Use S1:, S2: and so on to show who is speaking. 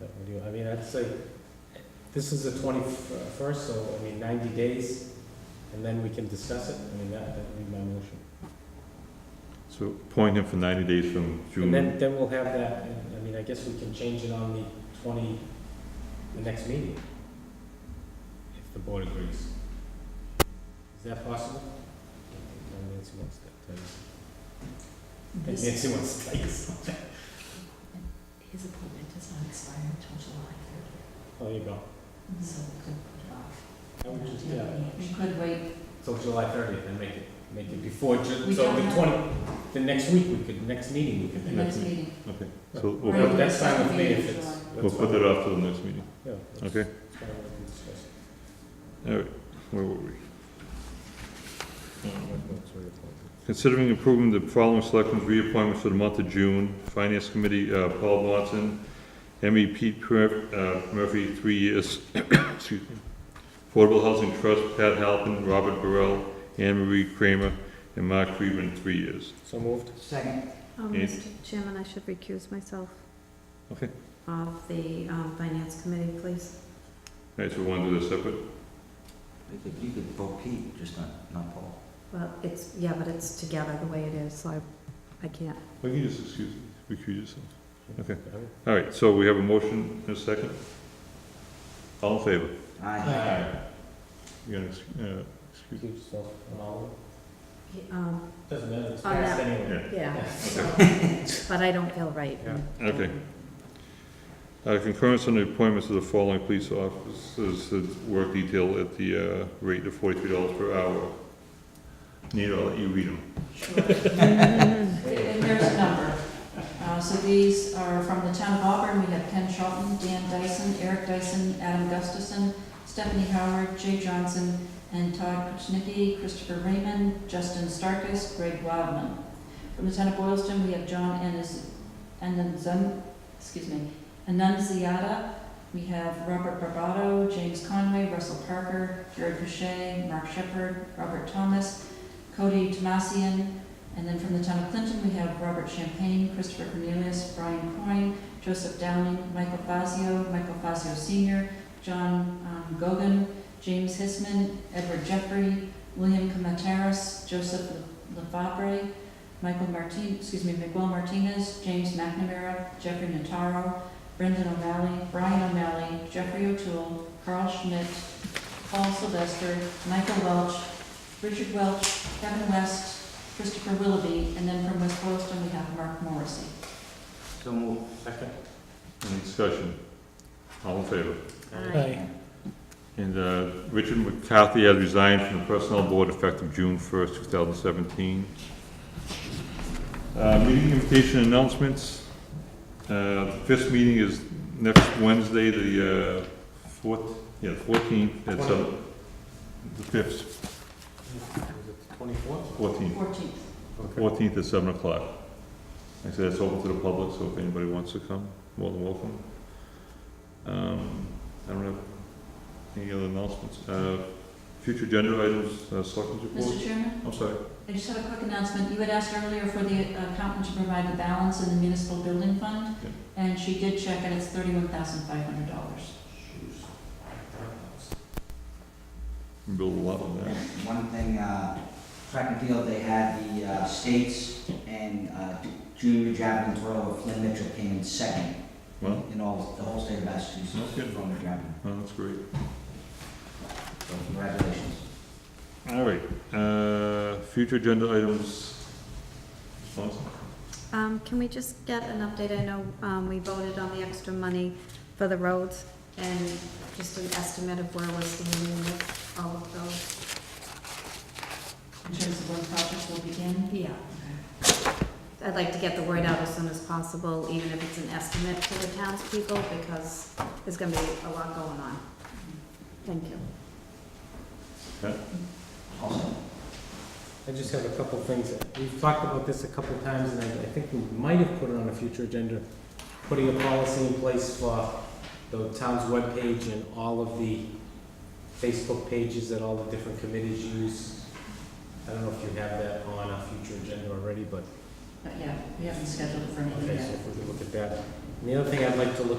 S1: can do. I mean, I'd say, this is the twenty-first, so, I mean, ninety days, and then we can discuss it. I mean, that, that would be my motion.
S2: So appoint him for 90 days from
S1: And
S2: June.
S1: then, then we'll have that, and, I mean, I guess we can change it on the twenty, the next meeting. If the board agrees. Is that possible? And Nancy wants that, and Nancy wants to take us.
S3: His appointment does not expire until July thirtieth,
S1: Oh, there you go.
S3: so we could put it off.
S1: I would just, yeah,
S3: Mm-hmm. We could wait,
S1: till July thirtieth, and make it, make it before Ju-
S3: We
S1: so
S3: don't
S1: the
S3: have-
S1: twenty, the next week, we could, next meeting, we could.
S3: the
S1: do it.
S3: next meeting.
S2: Okay, so we'll
S3: Right.
S2: put-
S1: But That's fine with me if
S3: Meeting,
S1: it's.
S3: July.
S2: we'll
S1: that's
S2: put
S1: fine.
S2: that off to the next meeting.
S1: Yeah, that's-
S2: Okay.
S1: that's kinda what we discussed.
S2: All right, where were we? Considering approving the following selectmen's reappointments for the month of June, Finance Committee, uh, Paul Watson, ME Pete Mur- uh, Murphy, three years, excuse me, Affordable Housing Trust, Pat Halpin, Robert Burrell, Anne Marie Kramer, and Mark Friedman, three years.
S1: So moved?
S4: Second,
S3: Um,
S2: Yeah.
S3: Mr. Chairman, I should recuse myself.
S2: Okay.
S3: Of the, um, finance committee, please.
S2: All right, so we want to do this separate?
S4: you could, you could vote Pete, just not, not Paul.
S3: Well, it's, yeah, but it's together the way it is, so I, I can't.
S2: Well, you just excuse, recuse yourself. Okay.
S1: I would-
S2: All right, so we have a motion and a second? All in favor?
S4: Aye.
S2: You're gonna, ex- uh, excuse
S1: Keep yourself on all of it.
S3: He- Um,
S1: Doesn't matter, it's
S3: Oh,
S1: passed
S3: yeah.
S1: anyway.
S3: yeah, so, but I don't feel right.
S1: Yeah.
S2: Okay. Uh, concurrence on the appointments of the following police officers, to work detail at the, uh, rate of forty-three dollars per hour. Nita, I'll let you read them.
S5: Sure.
S3: Mm-hmm.
S5: And there's a number. Uh, So these are from the town of Auburn, we have Ken Charlton, Dan Dyson, Eric Dyson, Adam Gustafson, Stephanie Howard, Jay Johnson, and Todd Kuchnicki, Christopher Raymond, Justin Starkus, Greg Wildman. From the town of Boylston, we have John Aniz- Anunzen, excuse me, Annunziata, we have Robert Barbato, James Conway, Russell Parker, Jared Boucher, Mark Shepard, Robert Thomas, Cody Tomasian, and then from the town of Clinton, we have Robert Champagne, Christopher Cornelius, Brian Coyne, Joseph Downing, Michael Fazio, Michael Fazio Senior, John um, Gogan, James Hisman, Edward Jeffrey, William Comateras, Joseph LaFabre, Michael Martin, excuse me, Miguel Martinez, James McNamara, Jeffrey Nataro, Brendan O'Malley, Brian O'Malley, Jeffrey O'Toole, Carl Schmidt, Paul Sylvester, Michael Welch, Richard Welch, Kevin West, Christopher Willoughby, and then from West Boylston, we have Mark Morrissey.
S4: So move.
S1: Second.
S2: Any discussion? All in favor?
S3: Aye.
S2: And, uh, Richard McCarthy has resigned from the Personnel Board effective June first, two thousand seventeen. Uh, meeting invitation announcements. Uh, first meeting is next Wednesday, the, uh, fourth, yeah, fourteenth, at seven, the fifth,
S1: Is it twenty-fourth?
S2: fourteenth,
S5: Fourteenth.
S2: fourteenth at seven o'clock. Like I said, it's open to the public, so if anybody wants to come, more than welcome. Um, I don't have any other announcements. Uh, future agenda items, uh, selectmen's report?
S5: Mr. Chairman,
S2: I'm sorry.
S5: I just have a quick announcement. You had asked earlier for the accountant to provide the balance in the municipal building fund,
S2: Yeah.
S5: and she did check, and it's thirty-one thousand five hundred dollars.
S2: We Build a lot on that.
S4: One thing, uh, track and field, they had the uh, states and uh, junior javelin thrower Flynn Mitchell came in second
S2: Well,
S4: in all, the whole state of Massachusetts
S2: That's good.
S4: from the javelin.
S2: well, that's great.
S4: So congratulations.
S2: All right, uh, future agenda items. Awesome.
S3: Um, can we just get an update? I know, um, we voted on the extra money for the roads and just an estimate of where we're standing with all of those.
S5: In terms of when projects will begin,
S3: Yeah. I'd like to get the word out as soon as possible, even if it's an estimate to the townspeople, because there's gonna be a lot going on. Thank you.
S4: Also,
S1: I just have a couple things. We've talked about this a couple times, and I, I think we might have put it on a future agenda, putting a policy in place for the town's webpage and all of the Facebook pages that all the different committees use. I don't know if you have that on a future agenda already, but,
S5: but yeah, we haven't scheduled it for anything
S1: okay,
S5: yet.
S1: so if we could look at that. And the other thing I'd like to look